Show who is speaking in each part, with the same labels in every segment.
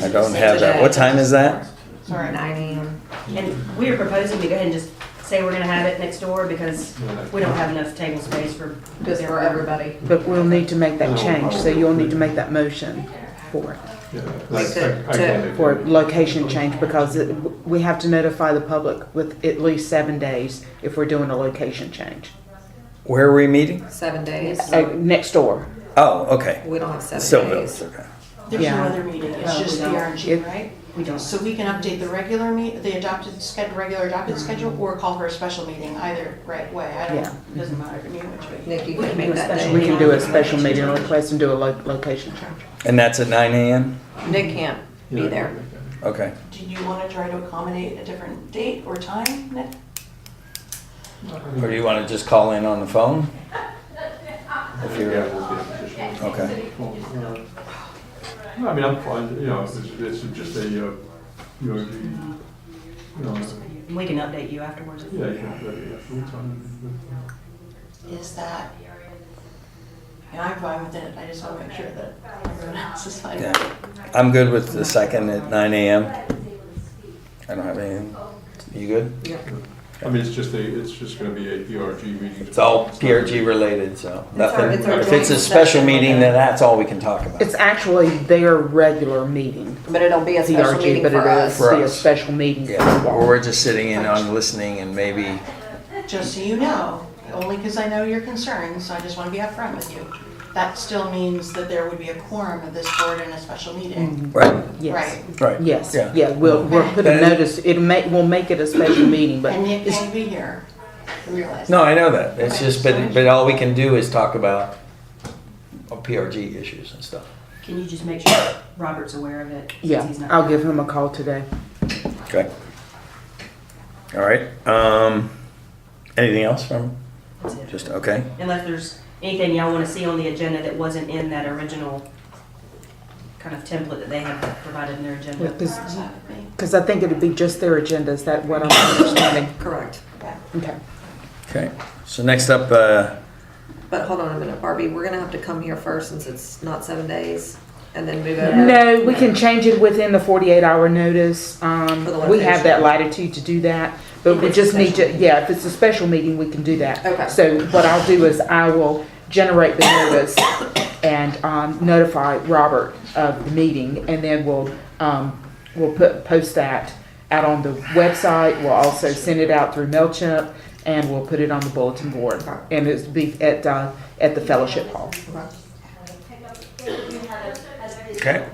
Speaker 1: I don't have that. What time is that?
Speaker 2: Sorry.
Speaker 3: Nine AM. And we were proposing to go ahead and just say we're gonna have it next door because we don't have enough table space for.
Speaker 2: Just for everybody.
Speaker 4: But we'll need to make that change, so you'll need to make that motion for it,
Speaker 2: Like to- to-
Speaker 4: for location change, because it- we have to notify the public with at least seven days if we're doing a location change.
Speaker 1: Where are we meeting?
Speaker 5: Seven days.
Speaker 4: Uh, Next door,
Speaker 1: Oh, okay.
Speaker 5: We don't have seven
Speaker 1: Stillville's,
Speaker 5: days.
Speaker 1: okay.
Speaker 6: There's no
Speaker 4: Yeah.
Speaker 6: other meeting, it's
Speaker 3: No,
Speaker 6: just the
Speaker 3: we don't.
Speaker 6: RNG,
Speaker 4: It-
Speaker 6: right?
Speaker 3: We don't.
Speaker 6: So we can update the regular meet, the adopted schedule, regular adopted schedule, or call for a special meeting, either right way, I
Speaker 4: Yeah.
Speaker 6: don't, doesn't matter to me which way.
Speaker 5: Nikki
Speaker 3: We
Speaker 5: can
Speaker 3: can
Speaker 5: make
Speaker 3: do a
Speaker 5: that
Speaker 3: special
Speaker 4: we
Speaker 5: day.
Speaker 4: can do a special meeting request and do a lo- location change.
Speaker 1: And that's at nine AM?
Speaker 5: Nick can't be there.
Speaker 1: Okay.
Speaker 6: Do you wanna try to accommodate a different date or time, Nick?
Speaker 1: Or do you want to just call in on the phone? If
Speaker 7: Yeah,
Speaker 1: you're,
Speaker 7: we'll be in position.
Speaker 1: okay.
Speaker 7: Well, uh, No, I mean, I'm fine, you know, it's, it's just a, uh, you know, the, you know,
Speaker 3: We can update you afterwards.
Speaker 7: yeah, you know, the, uh, full time,
Speaker 6: Is that? Yeah, I'm fine with it, I just wanna make sure that everyone else is fine.
Speaker 1: Yeah. I'm good with the second at nine AM. I don't have anything. You good?
Speaker 7: I mean, it's just a, it's just gonna be a PRG meeting.
Speaker 1: It's all
Speaker 7: not
Speaker 1: PRG related, so
Speaker 5: our-
Speaker 1: nothing.
Speaker 5: it's our
Speaker 1: If it's a
Speaker 5: joint
Speaker 1: special
Speaker 5: session with
Speaker 1: meeting,
Speaker 5: them.
Speaker 1: then that's all we can talk about.
Speaker 4: It's actually their regular meeting,
Speaker 5: But it'll be a special
Speaker 4: DRG,
Speaker 5: meeting
Speaker 4: but
Speaker 5: for
Speaker 4: it is
Speaker 5: us.
Speaker 1: For
Speaker 4: be a
Speaker 1: us.
Speaker 4: special meeting.
Speaker 1: Yeah, or we're just sitting in on listening and maybe,
Speaker 6: Just so you know, only because I know your concerns, so I just want to be upfront with you. That still means that there would be a quorum of this board in a special meeting.
Speaker 1: right,
Speaker 4: Mm-hmm. Yes,
Speaker 6: Right.
Speaker 1: right.
Speaker 4: yes,
Speaker 1: Yeah.
Speaker 4: yeah, we'll, we'll put a
Speaker 1: Okay.
Speaker 4: notice, it may, we'll make it a special meeting, but
Speaker 6: And Nick
Speaker 4: it's-
Speaker 6: can be here. I Realize.
Speaker 1: No,
Speaker 6: that.
Speaker 1: I know that. It's just, but, but all we can do is talk about PRG issues and stuff.
Speaker 3: Can you just make sure Robert's aware of it? since
Speaker 4: yeah,
Speaker 3: he's not-
Speaker 4: I'll give him a call today.
Speaker 1: Okay. All right, um, anything else from,
Speaker 3: That's it.
Speaker 1: just, okay,
Speaker 3: Unless there's anything y'all wanna see on the agenda that wasn't in that original kind of template that they had provided in their agenda.
Speaker 4: Because
Speaker 6: Fine with me.
Speaker 4: I think it'd be just their agenda, is that what I'm understanding?
Speaker 5: Correct.
Speaker 6: Yeah.
Speaker 4: Okay.
Speaker 1: okay. So next up, uh,
Speaker 5: But hold on a minute, Barbie, we're gonna have to come here first since it's not seven days and then move over.
Speaker 4: No, we can change it within the forty-eight hour notice. Um,
Speaker 5: For the
Speaker 4: we
Speaker 5: location.
Speaker 4: have that latitude to do that, but
Speaker 5: If
Speaker 4: we
Speaker 5: it's a
Speaker 4: just need
Speaker 5: special
Speaker 4: to, yeah, if it's a special meeting, we can do that.
Speaker 5: Okay.
Speaker 4: So what I'll do is I will generate the notice and, um, notify Robert of the meeting, and then we'll, um, we'll put, post that out on the website. We'll also send it out through MailChimp, and we'll put it on the bulletin board. And it's be at, uh, at the fellowship hall.
Speaker 1: okay.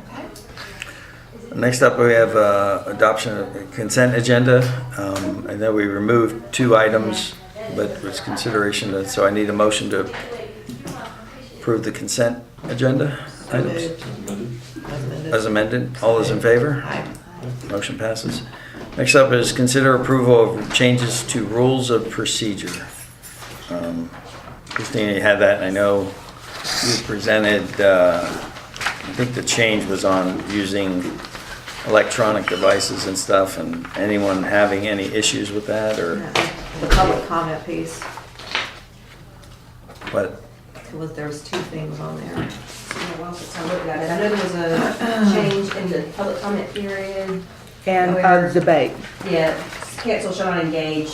Speaker 1: Next up, we have, uh, adoption of consent agenda. Um, I know we removed two items, but it's consideration, that- so I need a motion to approve the consent agenda items. As amended, all those in favor? Motion passes. Next up is consider approval of changes to rules of procedure. Um, Christina, you had that, and I know you presented, uh, I think the change was on using electronic devices and stuff, and anyone having any issues with that, or
Speaker 5: The public comment piece,
Speaker 1: what?
Speaker 5: was, there was two things on there.
Speaker 3: Yeah, well, since I looked at it, I know there was a change in the public comment period.
Speaker 4: And, uh,
Speaker 3: Where-
Speaker 4: debate.
Speaker 3: Yeah, council shall not engage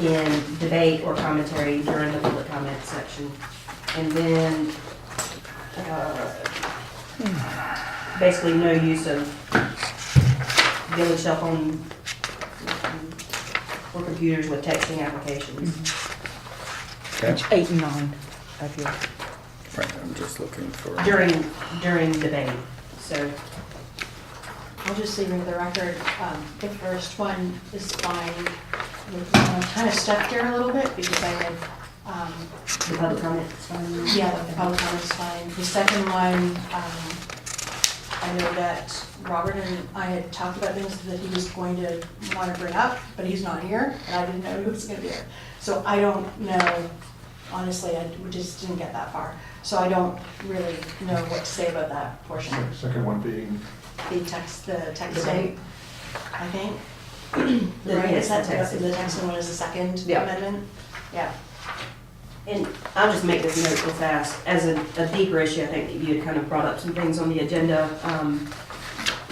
Speaker 3: in debate or commentary during the public comment section. And then, uh, basically no use of village cell phone or computers with texting applications.
Speaker 1: Okay,
Speaker 4: Eight and nine of your.
Speaker 1: right, I'm just looking for,
Speaker 3: During, during debate, so.
Speaker 6: I'll just leave it to the record. Um, The first one is fine. I'm kind of stuck there a little bit because I had, um,
Speaker 3: The public comment is fine.
Speaker 6: yeah, the public comment's fine. The second one, um, I know that Robert and I had talked about things that he was going to want to bring up, but he's not here, and I didn't know he was gonna be here. So I don't know, honestly, I, we just didn't get that far. So I don't really know what to say about that portion.
Speaker 7: Second one being,
Speaker 6: The text, the texting,
Speaker 5: Debate.
Speaker 6: I think.
Speaker 3: The-
Speaker 6: Right,
Speaker 3: yes,
Speaker 6: is that,
Speaker 3: the texting.
Speaker 6: the texting one is the second
Speaker 5: Yeah.
Speaker 6: amendment? Yeah.
Speaker 3: And I'll just make this note real fast. As a, a deeper issue, I think that you had kind of brought up some things on the agenda. Um,